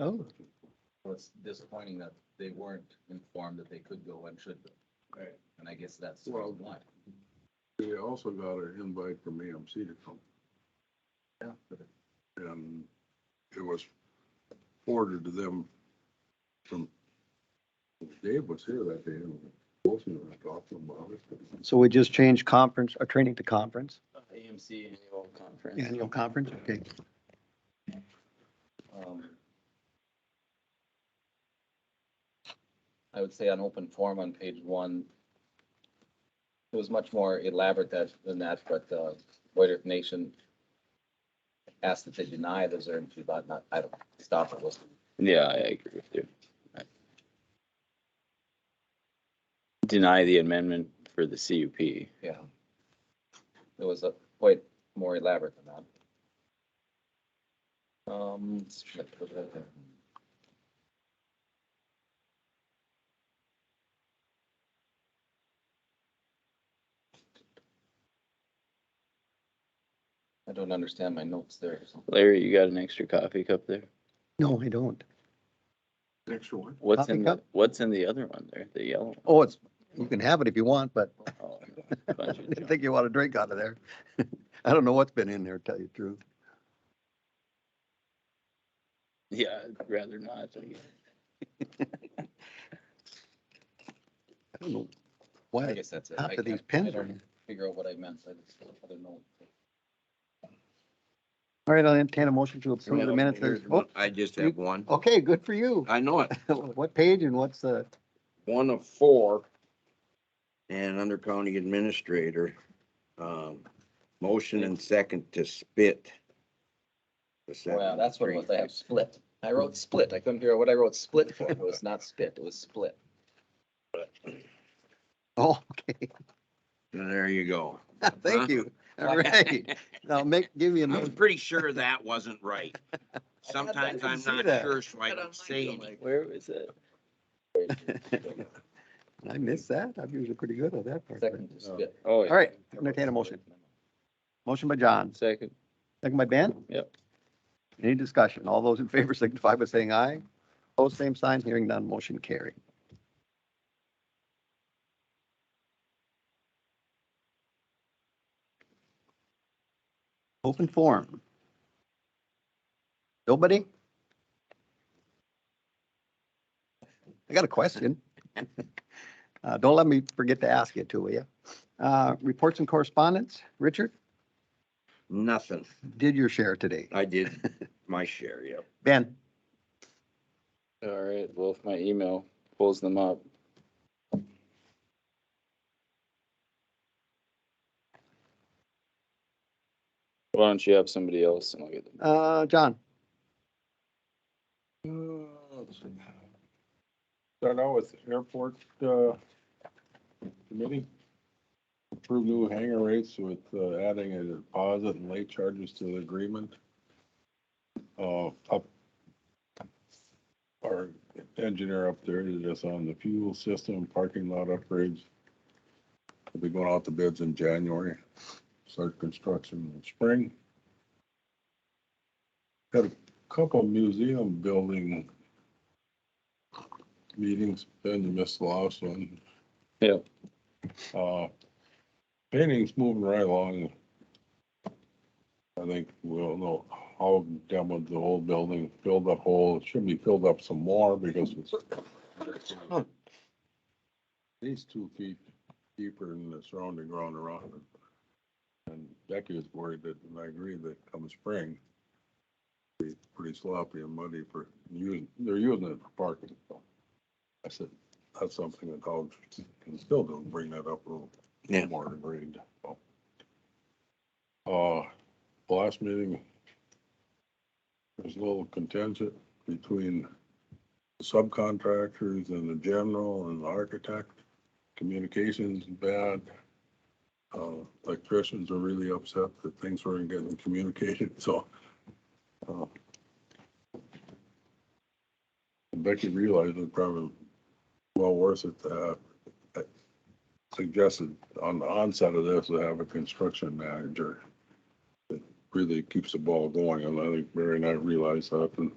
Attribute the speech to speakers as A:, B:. A: Oh,
B: So it's disappointing that they weren't informed that they could go and should go.
C: Right.
B: And I guess that's
D: Well-
B: why.
D: We also got an invite from AMC to come,
B: Yeah.
D: and it was forwarded to them from, Dave was here that day, and Wilson was talking about it.
A: so we just changed conference, or training to conference,
B: uh, AMC annual conference.
A: annual conference, okay.
B: Um, I would say on open forum on page one, it was much more elaborate that, than that, but, uh, Boyd Earth Nation asked that they deny the Zern fee, but not, I don't, stop it, was
E: Yeah, I agree with you. Deny the amendment for the CUP.
B: yeah. It was a, quite more elaborate than that. Um, let's put that there. I don't understand my notes there.
E: Larry, you got an extra coffee cup there?
A: No, I don't.
D: Next one.
E: What's
A: Coffee
E: in, the-
A: cup?
E: what's in the other one there, the yellow? one?
A: Oh, it's, you can have it if you want, but
E: Oh,
A: I
E: bunch of
A: didn't
E: junk.
A: think you want to drink out of there. I don't know what's been in there, to tell you the truth.
E: Yeah, I'd rather not. I guess.
A: I don't know
B: I
A: why,
B: guess that's it. I
A: after these
B: can't-
A: pins
B: I
A: are
B: don't
A: in.
B: Figure out what I meant. I just, I don't know.
A: All right, I'll entertain a motion to approve the minutes.
F: Here's
A: as-
F: one.
A: Oh,
F: I just
A: you-
F: have one.
A: okay, good for you.
F: I know it.
A: What page and what's the,
F: One of four. And under county administrator, um, motion and second to spit. the
B: Well, that's what it was. I
F: 7-3.
B: have split. I wrote split. I couldn't figure out what I wrote split for. It was not spit. It was split.
A: oh, okay,
F: There you go.
A: thank you. All right, now make, give me a
F: I was
A: motion.
F: pretty sure that wasn't right. Sometimes
A: didn't
F: I'm
A: see
F: not
A: that.
F: sure, so I don't say anything.
E: Where was it?
A: I missed that. I'm usually pretty good at that part. but-
B: Second to spit.
E: Oh,
A: All right, entertain a motion. Motion by John,
E: Second,
A: second by Ben?
E: Yep.
A: Any discussion? All those in favor signify by saying aye. Opposed, same sign, hearing none, motion carried. Open forum. Nobody? I got a question. Uh, don't let me forget to ask it too, will you? Uh, reports and correspondence, Richard?
F: Nothing.
A: did your share today.
F: I did my share, yeah.
A: Ben,
E: all right, well, if my email pulls them up. Why don't you have somebody else and I'll get them.
A: uh, John,
D: Start out with airport, uh, committee. Approve new hangar rates with uh, adding a deposit and late charges to the agreement. Uh, up. Our engineer up there did us on the fuel system, parking lot upgrades. We'll be going out to bids in January, start construction in spring. Got a couple museum building meetings, then you missed the last one.
E: Yep.
D: Uh, painting's moving right along. I think we'll know how done with the old building, filled up hole, it should be filled up some more because it's at least two feet deeper than the surrounding ground around it. And Becky was worried that, and I agree that come spring, be pretty sloppy and muddy for, using. they're using it for parking. I said, that's something that dogs can still do, bring that up a little
F: Yeah.
D: more agreed. Uh, last meeting, there's a little contention between subcontractors and the general and the architect. Communications is bad. Uh, electricians are really upset that things weren't getting communicated, so. uh, Becky realized it probably well worth it to have, I suggested on the onset of this, to have a construction manager. that Really keeps the ball going, and I think Mary and I realized that, and